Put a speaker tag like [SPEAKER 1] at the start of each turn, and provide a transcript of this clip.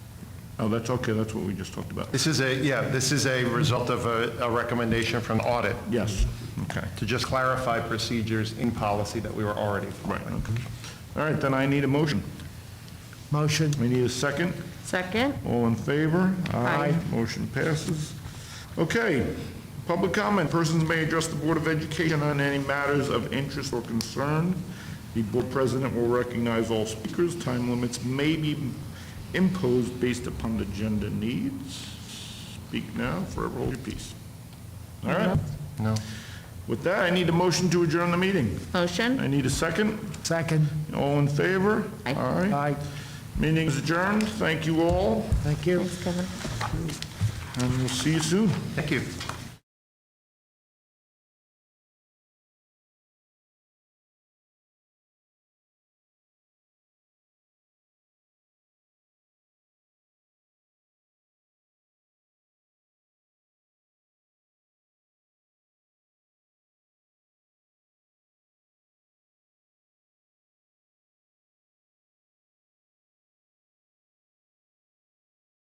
[SPEAKER 1] Oh, that's okay, that's what we just talked about.
[SPEAKER 2] This is a, yeah, this is a result of a, a recommendation from audit
[SPEAKER 1] Yes, okay,
[SPEAKER 2] to just clarify procedures in policy that we were already
[SPEAKER 1] right,
[SPEAKER 2] following.
[SPEAKER 1] okay. All right, then I need a motion.
[SPEAKER 3] Motion.
[SPEAKER 1] We need a second.
[SPEAKER 4] Second?
[SPEAKER 1] All in favor?
[SPEAKER 4] Aye.
[SPEAKER 1] Motion passes. Okay, public comment. Persons may address the Board of Education on any matters of interest or concern. The Board President will recognize all speakers. Time limits may be imposed based upon agenda needs. Speak now, forever hold your peace. All right?
[SPEAKER 2] No.
[SPEAKER 1] With that, I need a motion to adjourn the meeting.
[SPEAKER 4] Motion?
[SPEAKER 1] I need a second.
[SPEAKER 3] Second.
[SPEAKER 1] All in favor?
[SPEAKER 4] Aye.
[SPEAKER 1] All right.
[SPEAKER 3] Aye.
[SPEAKER 1] Meeting is adjourned. Thank you all,
[SPEAKER 3] Thank you.
[SPEAKER 4] Thanks, Kevin.
[SPEAKER 1] and we'll see you soon.
[SPEAKER 2] Thank you.